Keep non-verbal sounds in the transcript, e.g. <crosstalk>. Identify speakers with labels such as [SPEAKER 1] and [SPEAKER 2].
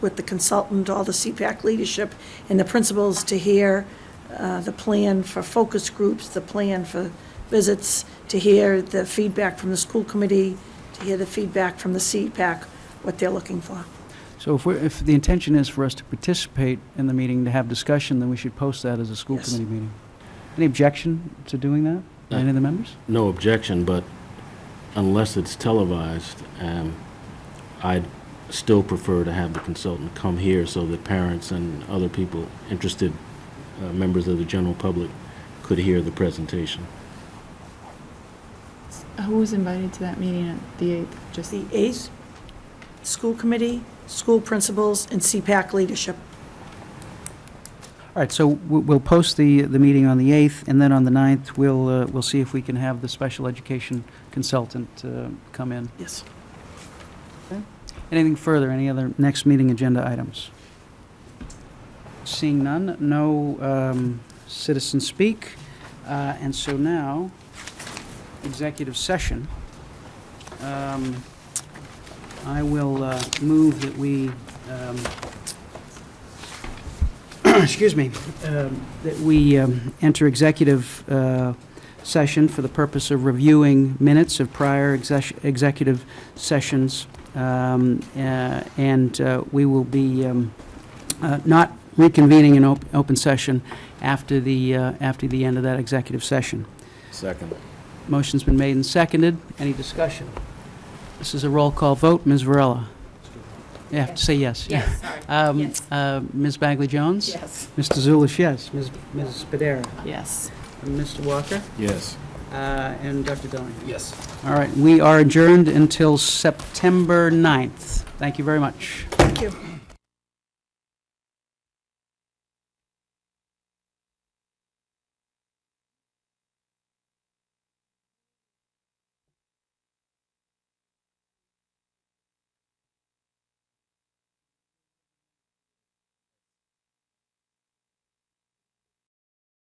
[SPEAKER 1] with the consultant, all the CPAC leadership, and the principals to hear uh, the plan for focus groups, the plan for visits, to hear the feedback from the school committee, to hear the feedback from the CPAC, what they're looking for.
[SPEAKER 2] So if we're, if the intention is for us to participate in the meeting, to have discussion, then we should post that as a school
[SPEAKER 1] Yes.
[SPEAKER 2] committee meeting. Any objection to doing that? by Any of the members?
[SPEAKER 3] no objection, but unless it's televised, um, I'd still prefer to have the consultant come here so that parents and other people, interested uh, members of the general public, could hear the presentation.
[SPEAKER 4] Who was invited to that meeting at the 8th? Just,
[SPEAKER 1] The eighth, school committee, school principals, and CPAC leadership.
[SPEAKER 2] All right, so we- we'll post the, the meeting on the 8th, and then on the 9th, we'll, uh, we'll see if we can have the special education consultant uh, come in.
[SPEAKER 1] Yes.
[SPEAKER 2] Anything further, any other next meeting agenda items? Seeing none, no um, citizen speak, Uh, and so now, executive session. Um, I will uh, move that we, um, <clears throat> excuse me, um, that we um, enter executive uh, session for the purpose of reviewing minutes of prior exec- executive sessions um, uh, And uh, we will be um, uh, not reconvening in op- open session after the, uh, after the end of that executive session.
[SPEAKER 3] Second.
[SPEAKER 2] Motion's been made and seconded. Any discussion? This is a roll call vote. Ms. Varela? You have to say yes.
[SPEAKER 5] Yes, sorry.
[SPEAKER 2] Um,
[SPEAKER 5] Yes.
[SPEAKER 2] uh, Ms. Bagley Jones?
[SPEAKER 5] Yes.
[SPEAKER 2] Mr. Zulish, yes. Ms. Ms. Padera?
[SPEAKER 5] Yes.
[SPEAKER 2] Mr. Walker?
[SPEAKER 3] Yes.
[SPEAKER 2] Uh, And Dr. Dilling?
[SPEAKER 3] Yes.
[SPEAKER 2] All right, we are adjourned until September 9th. Thank you very much.
[SPEAKER 1] Thank you.